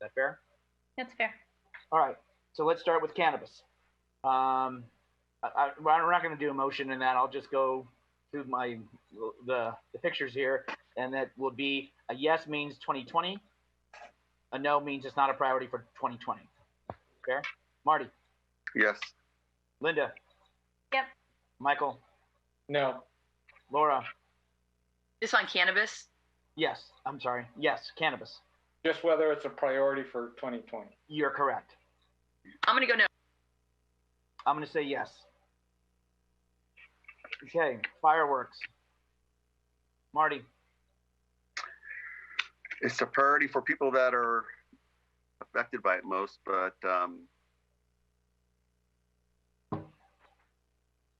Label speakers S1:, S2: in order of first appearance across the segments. S1: that fair?
S2: That's fair.
S1: All right. So let's start with cannabis. Um, I, I, we're not going to do a motion in that. I'll just go through my the, the pictures here, and that will be a yes means 2020. A no means it's not a priority for 2020. Fair? Marty,
S3: Yes.
S1: Linda.
S2: Yep.
S1: Michael,
S4: No.
S1: Laura.
S5: This on cannabis?
S1: Yes. I'm sorry. Yes. Cannabis.
S4: Just whether it's a priority for 2020.
S1: You're correct.
S5: I'm gonna go no.
S1: I'm going to say yes. Okay. Fireworks. Marty,
S3: It's a priority for people that are affected by it most, but um,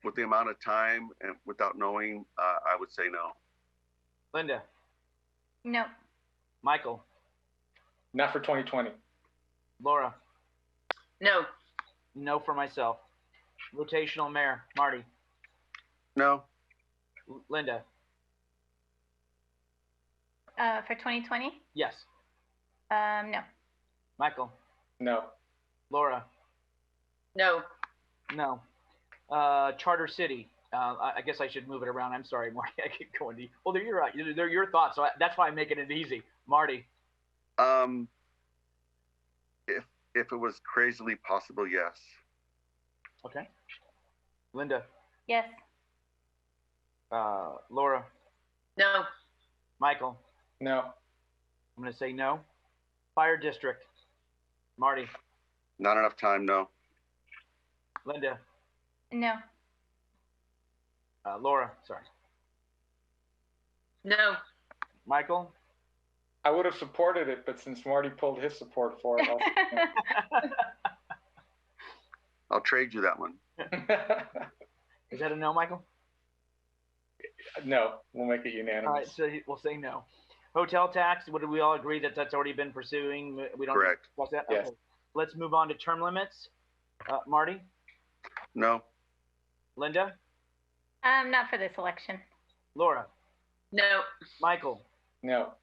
S3: with the amount of time and without knowing, uh, I would say no.
S1: Linda,
S2: No.
S1: Michael,
S4: Not for 2020.
S1: Laura.
S5: No.
S1: No for myself. Rotational mayor, Marty,
S3: No.
S1: L- Linda.
S2: Uh, for 2020?
S1: Yes.
S2: Um, no.
S1: Michael,
S4: No.
S1: Laura.
S5: No.
S1: No. Uh, Charter City. Uh, I, I guess I should move it around. I'm sorry, Marty. I keep going to you. Well, they're, you're right. They're, they're your thoughts. So I, that's why I'm making it easy. Marty,
S3: Um, if if it was crazily possible, yes.
S1: Linda,
S2: Yes.
S1: uh, Laura,
S5: No.
S1: Michael.
S4: No.
S1: I'm going to say no. Fire District. Marty,
S3: Not enough time. No.
S1: Linda,
S2: No.
S1: uh, Laura, sorry.
S5: No.
S1: Michael,
S4: I would have supported it, but since Marty pulled his support for it, I'll
S3: I'll trade you that one.
S1: is that a no, Michael?
S4: no. We'll make it
S1: All right,
S4: unanimous.
S1: so we'll say no. Hotel tax, What do we all agree that that's already been pursuing? We don't
S3: Correct.
S1: discuss that?
S4: Yes.
S1: Okay. Let's move on to term limits. Uh, Marty,
S3: No.
S1: Linda,
S2: Um, not for this election.
S1: Laura,
S5: No.
S1: Michael,
S4: No.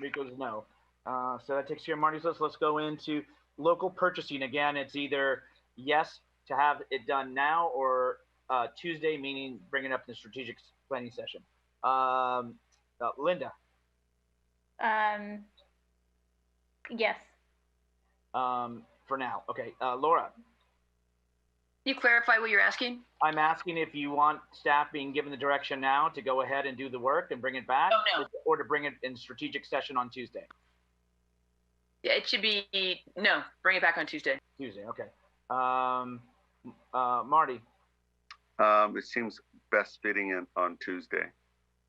S1: Rico's no. Uh, so that takes care of Marty's list. Let's go into local purchasing again. It's either yes to have it done now or uh, Tuesday, meaning bring it up in the strategic planning session. Um, uh, Linda,
S2: Um, yes.
S1: um, for now. Okay, uh, Laura.
S5: Can you clarify what you're asking?
S1: I'm asking if you want staff being given the direction now to go ahead and do the work and bring it back,
S5: Oh, no.
S1: or to bring it in strategic session on Tuesday.
S5: Yeah, it should be no. Bring it back on Tuesday.
S1: Tuesday, okay. Um, uh, Marty,
S3: Um, it seems best fitting in on Tuesday.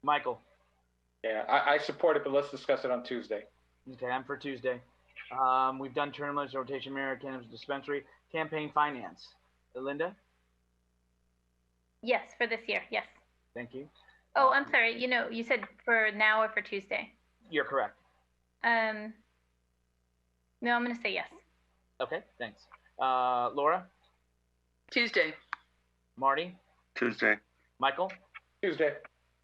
S1: Michael,
S4: Yeah, I, I support it, but let's discuss it on Tuesday.
S1: okay, I'm for Tuesday. Um, we've done term limits, rotation mirror, cannabis dispensary, campaign finance. Linda,
S2: Yes, for this year. Yes.
S1: thank you.
S2: Oh, I'm sorry. You know, you said for now or for Tuesday.
S1: You're correct.
S2: Um, no, I'm going to say yes.
S1: Okay, thanks. Uh, Laura,
S5: Tuesday.
S1: Marty,
S3: Tuesday.
S1: Michael.
S4: Tuesday.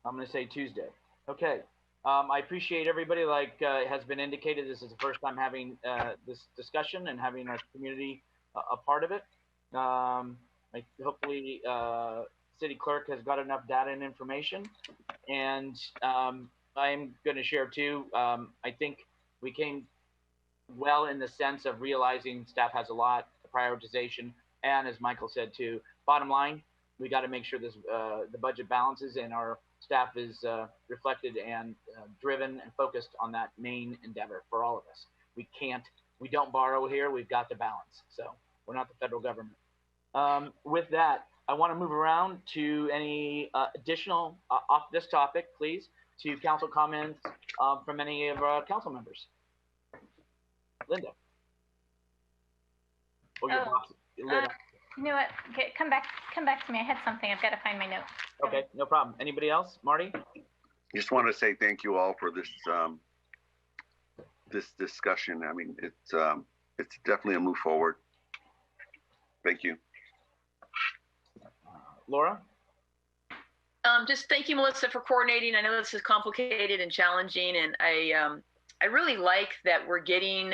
S1: I'm going to say Tuesday. Okay. Um, I appreciate everybody. Like uh, has been indicated, this is the first time having uh, this discussion and having our community uh, a part of it. Um, I, hopefully, uh, city clerk has got enough data and information. And um, I'm going to share too. Um, I think we came well in the sense of realizing staff has a lot, prioritization, and as Michael said too, bottom line, we got to make sure this uh, the budget balances and our staff is uh, reflected and uh, driven and focused on that main endeavor for all of us. We can't, we don't borrow here. We've got to balance. So we're not the federal government. Um, with that, I want to move around to any uh, additional uh, off this topic, please, to council comments uh, from any of our council members. Linda. Oh, you're
S2: Oh,
S1: boss- Linda.
S2: You know what? Okay, come back. Come back to me. I had something. I've got to find my note.
S1: Okay, no problem. Anybody else? Marty?
S3: Just want to say thank you all for this um, this discussion. I mean, it's um, it's definitely a move forward. Thank you.
S1: Laura?
S5: Um, just thank you, Melissa, for coordinating. I know this is complicated and challenging, and I um, I really like that we're getting